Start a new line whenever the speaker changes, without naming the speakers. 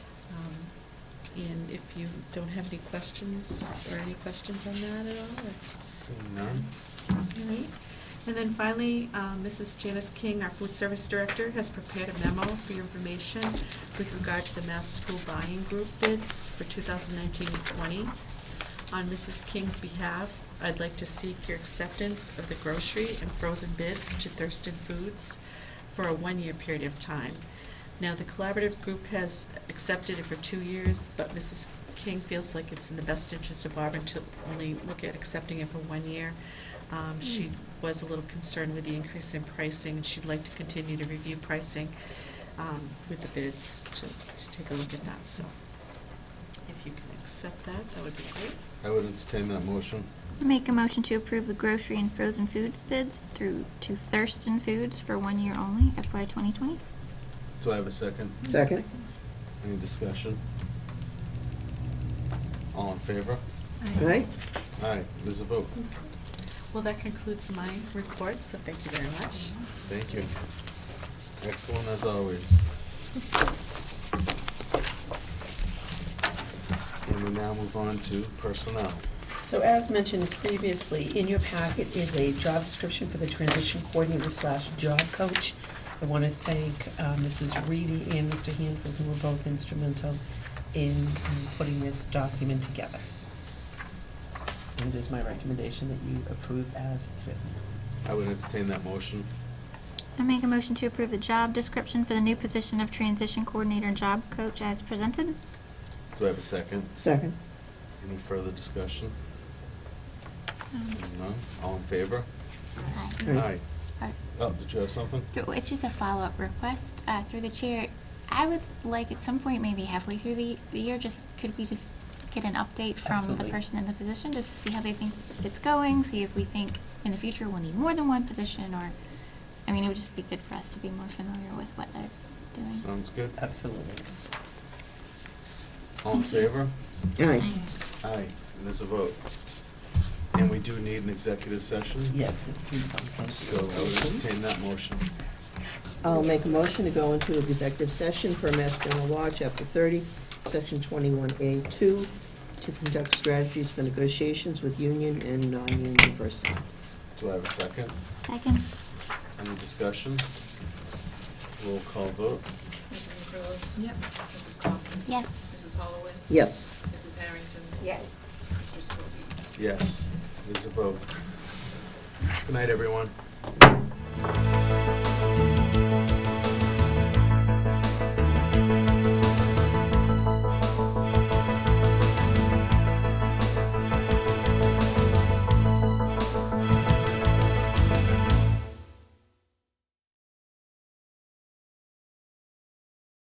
Um, And if you don't have any questions, or any questions on that at all, or?
Seeing none?
All right. Mm-hmm. And then finally, um, Mrs. Janice King, our food service director, has prepared a memo for your information with regard to the Mass School Buying Group bids for 2019 and 20. On Mrs. King's behalf, I'd like to seek your acceptance of the grocery and frozen bids to Thurston Foods for a one-year period of time. Now, the collaborative group has accepted it for two years, but Mrs. King feels like it's in the best interest of Auburn to only look at accepting it for one year. Um, She was a little concerned with the increase in pricing, and she'd like to continue to review pricing um, with the bids to, to take a look at that, so if you can accept that, that would be great.
I would entertain that motion.
Make a motion to approve the grocery and frozen foods bids through to Thurston Foods for one year only, FY 2020.
Do I have a second?
Second?
Any discussion? All in favor?
Aye?
Aye, there's a vote.
Well, that concludes my report, so thank you very much.
Thank you. Excellent as always. And we now move on to personnel.
So as mentioned previously, in your packet is a job description for the transition coordinator slash job coach. I want to thank uh, Mrs. Reedy and Mr. Hanford, who were both instrumental in um, putting this document together. And it is my recommendation that you approve as written.
I would entertain that motion.
I make a motion to approve the job description for the new position of transition coordinator and job coach as presented.
Do I have a second?
Second.
Any further discussion?
Um,
Seeing none? All in favor?
aye.
Aye.
Aye.
Aye.
Oh, did you have something?
So It's just a follow-up request uh, through the chair. I would like at some point, maybe halfway through the the year, just, could we just get an update from the
Absolutely.
person in the position, just to see how they think it's going, see if we think in the future we'll need more than one position, or, I mean, it would just be good for us to be more familiar with what they're doing.
Sounds good.
Absolutely.
All in
Thank you.
favor?
Aye.
Aye, and there's a vote. And we do need an executive session?
Yes.
So I would entertain that motion.
I'll make a motion to go into executive session per Mass General Law, Chapter 30, Section 21A2, to conduct strategies for negotiations with union and non-union personnel.
Do I have a second?
Second?
Any discussion? Roll call vote.
Mrs. McCrillis? Yep. Mrs. Coughlin?
Yes.
Mrs. Holloway?
Yes.
Mrs. Harrington? Yes. Mr. Scobie?
Yes, there's a vote. Good night, everyone.